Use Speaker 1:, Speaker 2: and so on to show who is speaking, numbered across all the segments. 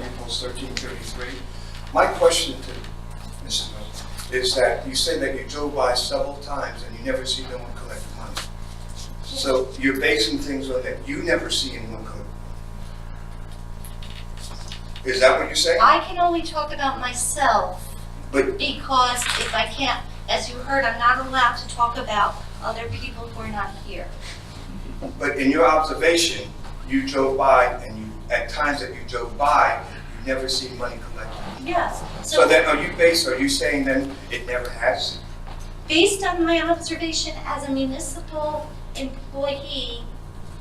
Speaker 1: Rules 1333. My question to Mrs. Miller is that you say that you drove by several times and you never see no one collect money. So you're basing things on that you never see anyone collect money. Is that what you're saying?
Speaker 2: I can only talk about myself
Speaker 1: But,
Speaker 2: because if I can't, as you heard, I'm not allowed to talk about other people who are not here.
Speaker 1: but in your observation, you drove by and you, at times that you drove by, you never see money collected.
Speaker 2: Yes,
Speaker 1: So
Speaker 2: so
Speaker 1: then, are you based, are you saying then it never has?
Speaker 2: based on my observation as a municipal employee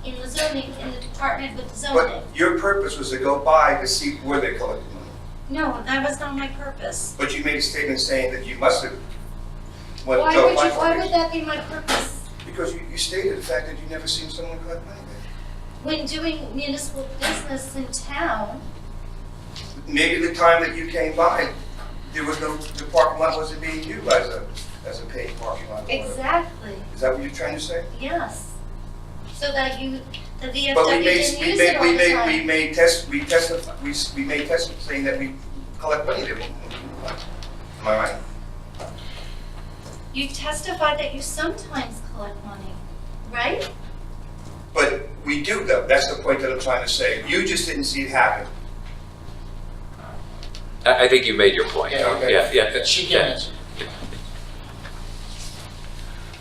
Speaker 2: in the zoning, in the department with zoning,
Speaker 1: But your purpose was to go by to see where they collected money.
Speaker 2: no, that was not my purpose.
Speaker 1: But you made a statement saying that you must have. went
Speaker 2: Why
Speaker 1: to
Speaker 2: would you,
Speaker 1: apply for
Speaker 2: why
Speaker 1: it.
Speaker 2: would that be my purpose?
Speaker 1: Because you, you stated the fact that you never seen someone collect money there.
Speaker 2: When doing municipal business in town,
Speaker 1: Maybe the time that you came by, there was no, the parking lot wasn't being used as a, as a paid parking lot. or whatever.
Speaker 2: exactly,
Speaker 1: Is that what you're trying to say?
Speaker 2: yes. So that you, the VFW
Speaker 1: But we made,
Speaker 2: didn't
Speaker 1: we
Speaker 2: use it
Speaker 1: made,
Speaker 2: all
Speaker 1: we
Speaker 2: the
Speaker 1: made, we
Speaker 2: time.
Speaker 1: made test, we tested, we, s- we made test saying that we collect money there. Am I right?
Speaker 2: You testified that you sometimes collect money, right?
Speaker 1: But we do though, that's the point that I'm trying to say. You just didn't see it happen.
Speaker 3: I, I think you made your point.
Speaker 4: Yeah,
Speaker 1: okay.
Speaker 3: Yeah, yeah.
Speaker 4: She can
Speaker 3: yeah.
Speaker 4: answer.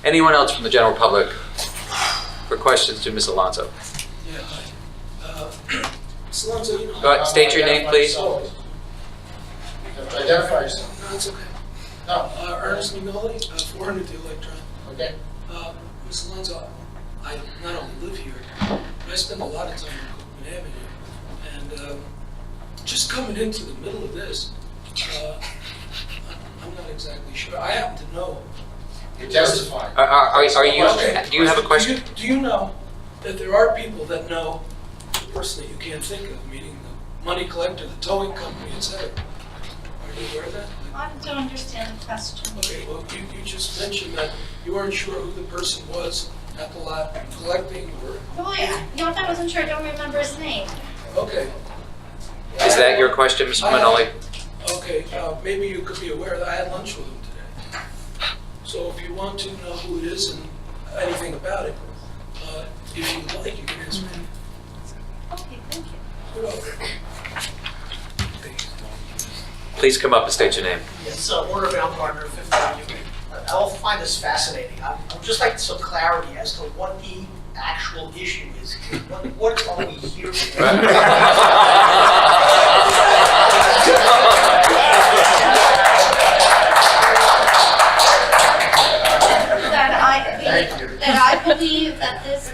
Speaker 3: Anyone else from the general public for questions to Ms. Alonso?
Speaker 4: Yeah, hi. Uh, Ms. Alonso, you know.
Speaker 3: Go ahead, state your
Speaker 4: Identify
Speaker 3: name, please.
Speaker 4: yourself. You have to Identify yourself.
Speaker 5: No, it's okay.
Speaker 4: No,
Speaker 5: Uh, Ernest Mignoli, uh, 400 The Electron.
Speaker 4: okay.
Speaker 5: Uh, Ms. Alonso, I not only live here, but I spend a lot of time on Copeland Avenue. And um, just coming into the middle of this, uh, I- I'm not exactly sure. I happen to know.
Speaker 4: You testify.
Speaker 3: Are, are, are are you,
Speaker 4: Question.
Speaker 3: do you have a question?
Speaker 5: Do you do you know that there are people that know the person that you can't think of, meaning the money collector, the towing company, et cetera? Are you aware of that?
Speaker 2: I
Speaker 5: Like,
Speaker 2: don't understand the question.
Speaker 5: Okay, well, you, you just mentioned that you weren't sure who the person was at the lot collecting or,
Speaker 2: No, I, no, if I wasn't sure, I don't remember his name.
Speaker 5: okay,
Speaker 3: Is that your question, Mr. Manoli?
Speaker 5: okay, uh, maybe you could be aware that I had lunch with him today. So if you want to know who it is and anything about it, uh, if you'd like, you can ask me.
Speaker 2: Okay, thank you.
Speaker 3: Please come up and state your name.
Speaker 6: It's uh, Warner Baumgartner, Fifth Avenue. Uh, I'll find this fascinating. I- I'd just like some clarity as to what the actual issue is. What- What are we here for?
Speaker 2: That I,
Speaker 4: Thank you.
Speaker 2: believe- that I believe that this,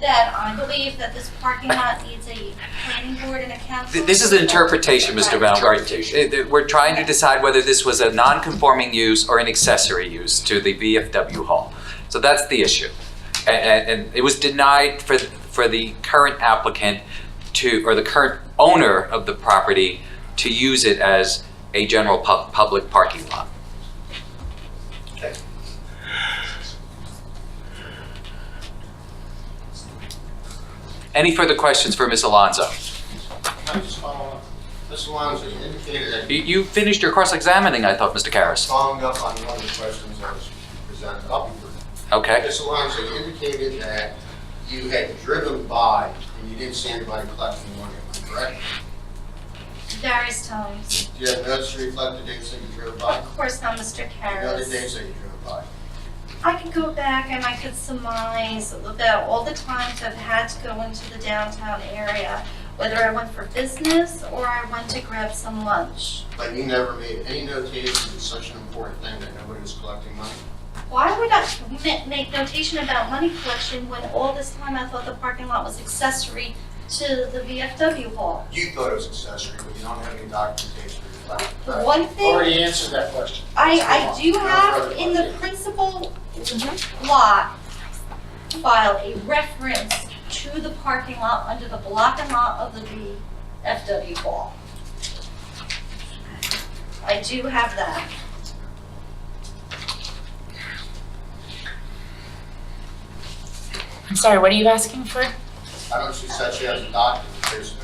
Speaker 2: that I believe that this parking lot needs a planning board and a council.
Speaker 3: Th- This is an interpretation, Mr.
Speaker 2: Right.
Speaker 3: Baumgartner. We're trying to decide whether this was a non-conforming use or an accessory use to the VFW hall. So that's the issue. A- a- And it was denied for, for the current applicant to, or the current owner of the property to use it as a general pub- public parking lot. Any further questions for Ms. Alonso?
Speaker 7: Can I just follow up? Ms. Alonso, you indicated that
Speaker 3: You-
Speaker 7: you
Speaker 3: You finished your cross-examining, I thought, Mr. Karas.
Speaker 7: followed up on one of the questions that was presented. I'll be brief.
Speaker 3: Okay.
Speaker 7: Ms. Alonso, you indicated that you had driven by and you didn't see anybody collecting money, am I correct?
Speaker 2: Various times.
Speaker 7: Do you have notes to reflect the dates that you drove by?
Speaker 2: Of course not, Mr.
Speaker 7: And The other
Speaker 2: Karas.
Speaker 7: dates that you drove by?
Speaker 2: I could go back and I could surmise about all the times I've had to go into the downtown area, whether I went for business or I went to grab some lunch.
Speaker 7: But you never made any notation of such an important thing that nobody was collecting money?
Speaker 2: Why would I ma- make notation about money collection when all this time I thought the parking lot was accessory to the VFW hall?
Speaker 7: You thought it was accessory, but you don't have any documentation to reflect.
Speaker 2: The one thing
Speaker 4: Already answered that question.
Speaker 2: I, I do have in the principal lot file a reference to the parking lot under the block and lot of the VFW hall. I do have that.
Speaker 8: I'm sorry, what are you asking for?
Speaker 7: I don't see such as a document, there's